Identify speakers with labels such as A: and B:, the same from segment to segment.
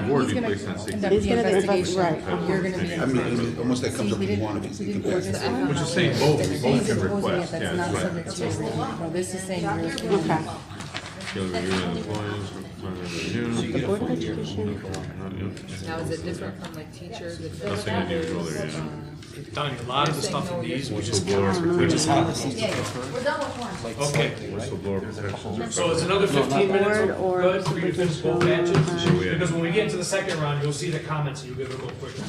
A: He's
B: board be
A: gonna
B: placed on safety.
A: conduct
C: He's
A: the
C: gonna invest-
A: investigation.
C: right.
A: You're gonna be.
B: I
A: the
B: mean,
A: expert.
D: I mean, I mean, almost that comes up
A: See, he
D: with one of
A: didn't-
D: these.
A: he
D: you
A: didn't
D: can
A: order
D: pass.
A: the alcohol.
B: But you're saying both- both
A: He's
B: can
A: proposing it
B: request,
A: that's
B: yeah,
A: not
B: that's right.
A: subject to your approval. This is saying you're
C: Okay.
A: responsible.
B: Shall review and employees, employment review.
C: The Board of Education,
E: Now, is it different from like teachers? and-
B: Nothing unusual there,
A: Uh,
B: yeah.
F: Donnie, a lot of the stuff in these, we just,
B: Whistleblower protections.
G: We're done with one.
F: okay.
B: Whistleblower protections are
F: So
B: covered.
F: it's another fifteen minutes,
C: Board or
F: good, for you to finish both
C: supervision,
F: matches?
B: So we had-
F: Because when we get into the second round, you'll see the comments, and you'll be able to go quicker.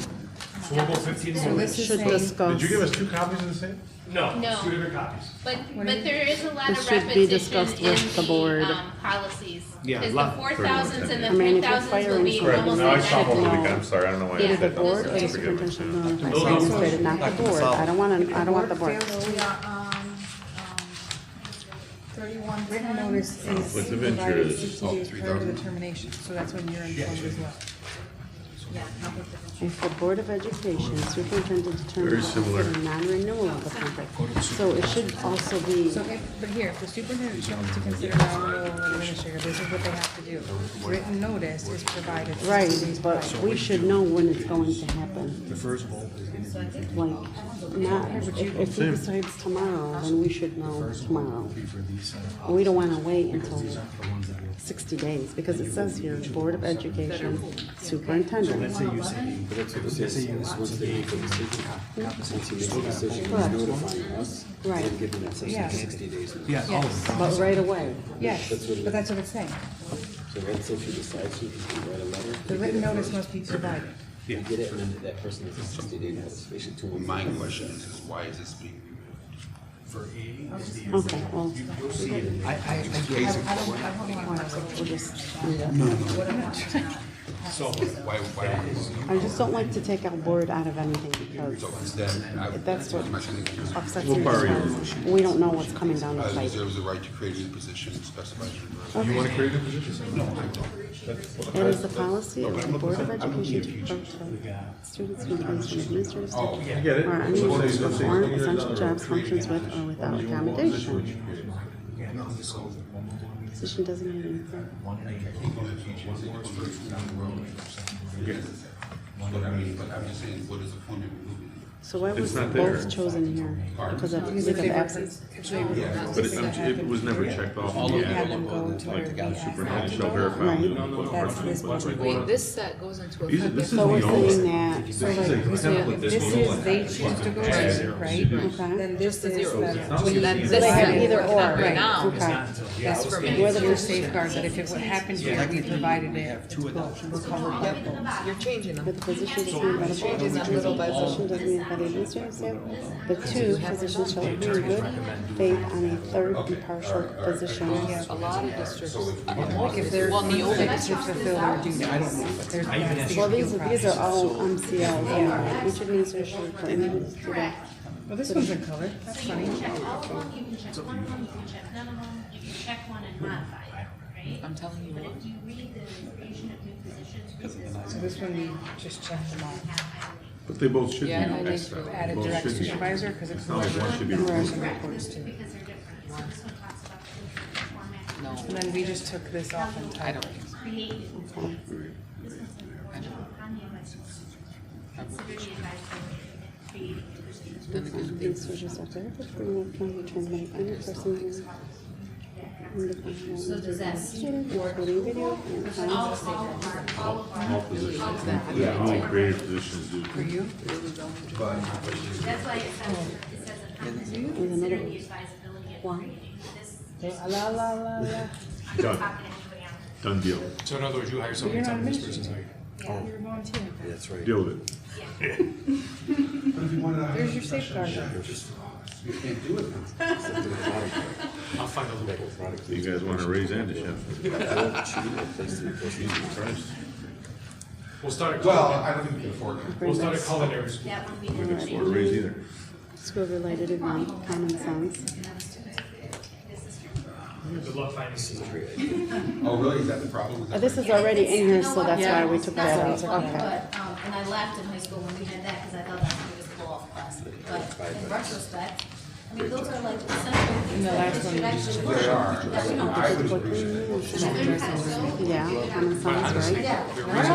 F: So we'll go fifteen
A: So
F: more.
A: this is
C: should
A: saying,
B: Did you give us
C: discuss.
B: two copies of the same?
F: No,
H: No.
F: two different copies.
H: But, but there is a lot
C: This
H: of
C: should be
H: repetition
C: discussed with the
H: in
C: board.
H: the, um, policies.
F: Yeah,
H: Cause the
F: lot.
H: four thousands and the
C: I mean,
H: three
C: if you're
H: thousands will
C: firing
H: be
C: someone,
B: Right,
H: almost
B: now I saw
C: should
H: identical.
B: one over
C: know.
B: the, I'm sorry, I don't know why I
H: Yeah.
B: said
C: The
B: that.
C: board or the
B: Forgive me.
C: superintendent shall notify the administrator, not the board. I don't want to, I don't want the board.
G: Fail, we are on, um, thirty-one
A: written
G: ten.
A: notice
B: Conflict
A: is
B: of
A: provided
B: interest.
A: sixty
D: Oh,
A: days prior to
D: 3,000.
A: the termination, so that's when you're informed as well.
C: If the Board of Education superintendent
B: Very
C: determines
B: similar.
C: the non-renewal of the contract, so it should also be,
A: So if, but here, if the superintendent chose to consider non-renewal of administrator, this is what they have to do. Written notice is provided sixty
C: right,
A: days prior.
C: but we should know when it's going to happen.
D: The first vote is gonna
C: Like, not, if if he decides tomorrow, then we should know tomorrow.
D: be for these. uh,
C: We don't want to wait until
D: The ones that are.
C: sixty days, because it says here, Board of Education superintendent.
I: Say you say, let's say you, once they make a decision, since you make a decision,
C: Hmm? Correct.
I: you notify us,
C: Right.
I: and give them that
A: Yeah.
I: session sixty days. notice.
A: Yes,
C: But right away,
A: yes, but that's what it's saying.
I: So let's say she decides she can write a letter.
A: The written notice must be provided.
I: You get it, and then that person has a sixty day notice, we should do it.
D: My question is, is why is this being removed? For A is the.
C: okay, well,
D: You'll see it.
I: I, I, I
C: we'll just,
D: So. Why, why?
C: I just don't like to take our board out of anything, because
D: So instead, I.
C: That's what-
D: My thing is,
C: upsets me, because we don't know what's coming down the
D: I
C: pipe.
D: reserve the right to create a new position specified. in the-
B: You wanna create a position?
C: It is the policy of the Board of Education to protect students from abuse from administrators
B: I get it.
C: or any
B: So
C: person
B: it's-
C: to
B: it's-
C: perform
B: it's-
C: essential jobs, functions with, or without accommodation.
B: Position would you create?
C: Position designated in the
D: But I mean, but I'm just saying, what is the point of removing it?
C: So why was
B: It's not there.
C: both chosen here? Because of leave of absence?
B: But it, um, it was never checked off.
A: We
B: Yeah.
A: had them go to where we
B: Superintendent
A: asked
B: shall
A: them to
B: verify.
A: go.
C: Right.
A: That's this one.
E: Wait, this set goes into
B: These are- this
E: effect.
B: is the
C: So we're saying
B: old.
C: that,
A: So like, so if this is, they choose to go to, right?
C: Okay.
A: Then this is the,
E: Well, that- this
C: they have
E: set
C: either
E: is
C: or,
E: not
A: right.
E: now.
C: okay,
A: that's for me,
C: Whether
A: your
C: we're-
A: safeguards, that if it would happen here, we provided it. to We're covered by both.
E: You're changing them.
C: but the position does not by the board, the position does not by the administrative staff. The two positions shall agree in good faith on a third impartial position.
E: A lot of districts,
A: If they're
E: well, in the old
A: to fulfill their duties. There's not
C: Well,
A: safety
C: these, these
A: process.
C: are all um, MCLs, anyway. each administration for any student.
A: Well, this one's in color, that's
H: You
A: funny.
H: can check all of them, you can check one of them, you can check none of them, you can check one and modify it, right?
E: I'm telling you
H: But
E: what.
H: if you read the creation of new positions, we just
A: So this one, we just checked them all.
H: have highlighted.
B: But they both should be
E: Yeah, I think
B: Xed out.
A: Add a
B: Both
A: direct
B: should be.
A: supervisor, because it's
B: It's not like one
A: whoever
B: should be
A: the person
C: Right.
A: reports to.
H: Because they're different, so this one talks about the different format.
E: No,
A: And then we just took this off and
E: I
A: tied
E: don't
A: it.
E: think so.
H: Created. This one's the proportional on the advisory. Consider the advisory creating new positions.
C: Administrators Um, are directed for the appointment to terminate any person who- in the final
H: So does that
C: student, including video and final-
H: All of our, all of our.
B: All positions. Yeah, all created positions do.
A: For you?
H: That's why it says, it says a comprehensive, consider the advisability of
C: One.
H: creating this.
A: La, la, la, la.
B: Done. Done deal.
F: So in other words, you hire
A: You're
F: somebody to
A: not
F: tell
A: a
F: this person's hired.
A: You're volunteering.
I: That's right.
B: Deal with it.
A: There's your safeguard.
F: I'll find a loophole.
B: So you guys wanna raise and a chef?
F: We'll start at
D: Well,
F: culinary,
D: I don't think we can afford it.
F: we'll start at culinary school.
H: That would be
B: We
H: the.
B: can afford to raise either.
C: School-related event, common sense.
F: Good luck finding Caesar.
D: Oh, really? Is that the problem? Is
C: Uh,
D: that
C: This
D: right?
C: is already in here,
H: You know
C: so
H: what?
C: that's why we
H: It's
C: took
H: not
C: that
H: so
C: out,
H: important,
C: okay.
H: But, um, and I laughed in high school when we had that, cause I thought that's what it was pull off class, but in retrospect, I mean, those are like essential things that should actually work. That we don't
D: I would appreciate it.
H: do. And I learned how to sew.
C: Yeah, common sense, right?
H: Yeah.